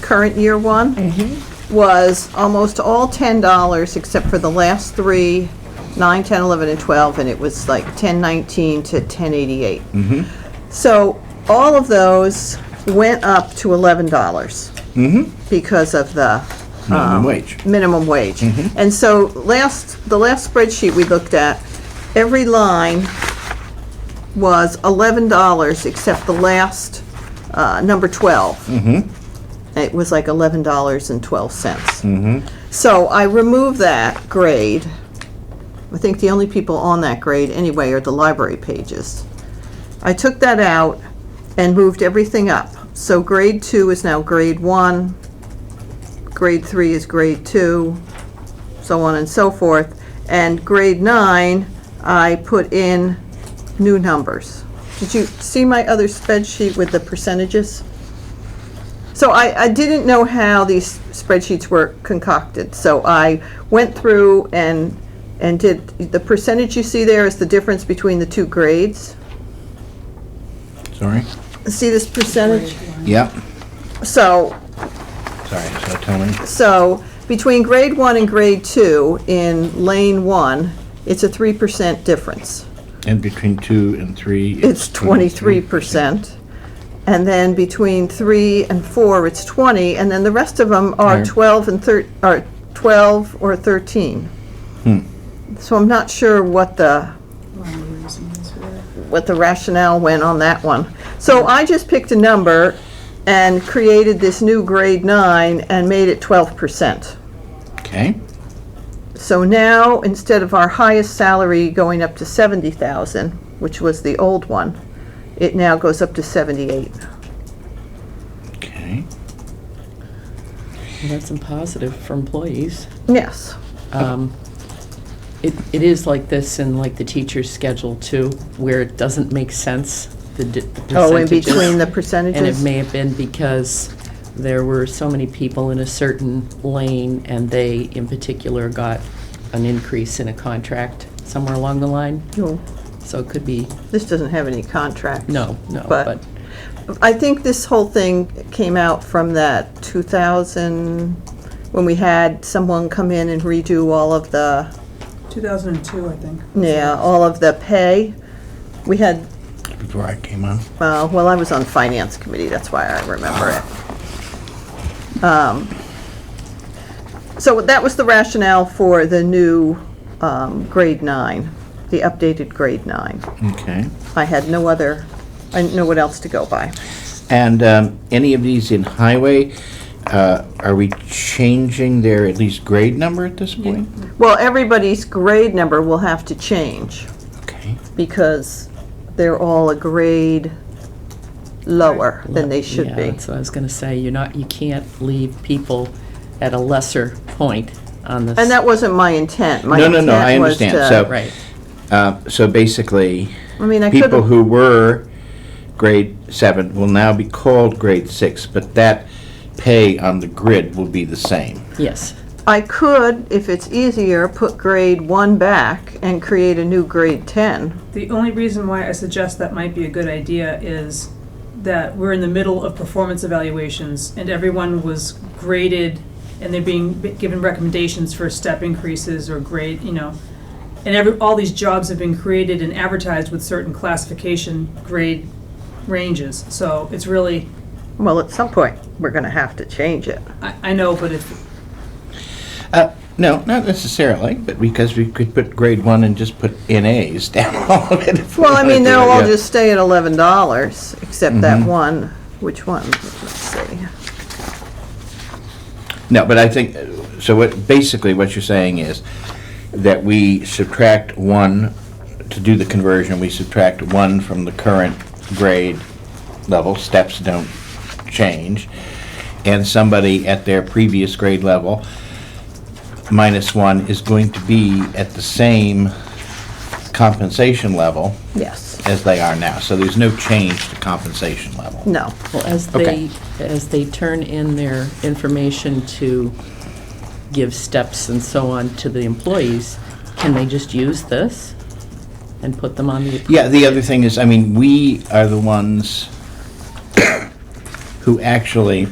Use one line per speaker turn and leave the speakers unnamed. current year one, was almost all ten dollars except for the last three, nine, ten, eleven, and twelve, and it was like ten nineteen to ten eighty-eight. So all of those went up to eleven dollars. Because of the
minimum wage.
minimum wage. And so last, the last spreadsheet we looked at, every line was eleven dollars except the last, uh, number 12 It was like eleven dollars and twelve cents. So I removed that grade. I think the only people on that grade anyway are the library pages. I took that out and moved everything up. So grade two is now grade one, grade three is grade two, so on and so forth. And grade nine, I put in new numbers. Did you see my other spreadsheet with the percentages? So I, I didn't know how these spreadsheets were concocted, so I went through and, and did, the percentage you see there is the difference between the two grades.
Sorry?
See this percentage?
Yep.
So
Sorry, so tell me.
So between grade one and grade two in lane one, it's a three percent difference.
And between two and three?
It's twenty-three percent. And then between three and four, it's twenty, and then the rest of them are
Right.
twelve and thir, are twelve or thirteen. Hmm. So I'm not sure what the, what the rationale went on that one. So I just picked a number and created this new grade nine and made it twelve percent.
Okay,
So now, instead of our highest salary going up to 70,000, which was the old one, it now goes up to 78.
okay.
Well, That's a positive for employees.
Yes.
Um, It, it is like this in like the teacher's schedule too, where it doesn't make sense, the di- the
Oh, in
percentages.
between the
And it
percentages?
may have been because there were so many people in a certain lane and they in particular got an increase in a contract somewhere along the line.
No,
So it could be,
This doesn't have any contract.
no, no,
But
but
I think this whole thing came out from that 2000, when we had someone come in and redo all of the,
2002, I think.
yeah, all of the pay. We had
Before I came on.
Uh, Well, I was on Finance Committee, that's why I remember it. Um, So that was the rationale for the new um, grade nine, the updated grade nine.
Okay.
I had no other, I didn't know what else to go by.
And um, any of these in highway, uh, are we changing their at least grade number at this point?
Well, everybody's grade number will have to change
Okay,
because they're all a grade lower than they should
Yeah,
be.
that's what I was gonna say, you're not, you can't leave people at a lesser point on this.
And that wasn't my intent. My
No, no, no,
intent
I
was
understand.
to-
So-
Right.
Uh, so basically,
I mean, I
people
could've-
who were grade seven will now be called grade six, but that pay on the grid will be the same.
Yes,
I could, if it's easier, put grade one back and create a new grade 10.
The only reason why I suggest that might be a good idea is that we're in the middle of performance evaluations and everyone was graded and they're being b- given recommendations for step increases or grade, you know. And every, all these jobs have been created and advertised with certain classification grade ranges. So it's really,
Well, at some point, we're going to have to change it.
I, I know, but if,
Uh, No, not necessarily, but because we could put grade one and just put NAs down all of it. if we
Well, I mean,
wanted to,
they'll all
yeah.
just stay at $11, except that one, which one? Let's see.
No, but I think, so what, basically what you're saying is that we subtract one, to do the conversion, we subtract one from the current grade level, steps don't change, and somebody at their previous grade level, minus one, is going to be at the same compensation level
Yes.
as they are now. So there's no change to compensation level.
No.
well, as
Okay.
they, as they turn in their information to give steps and so on to the employees, can they just use this and put them on the?
Yeah, the other thing is, I mean, we are the ones who actually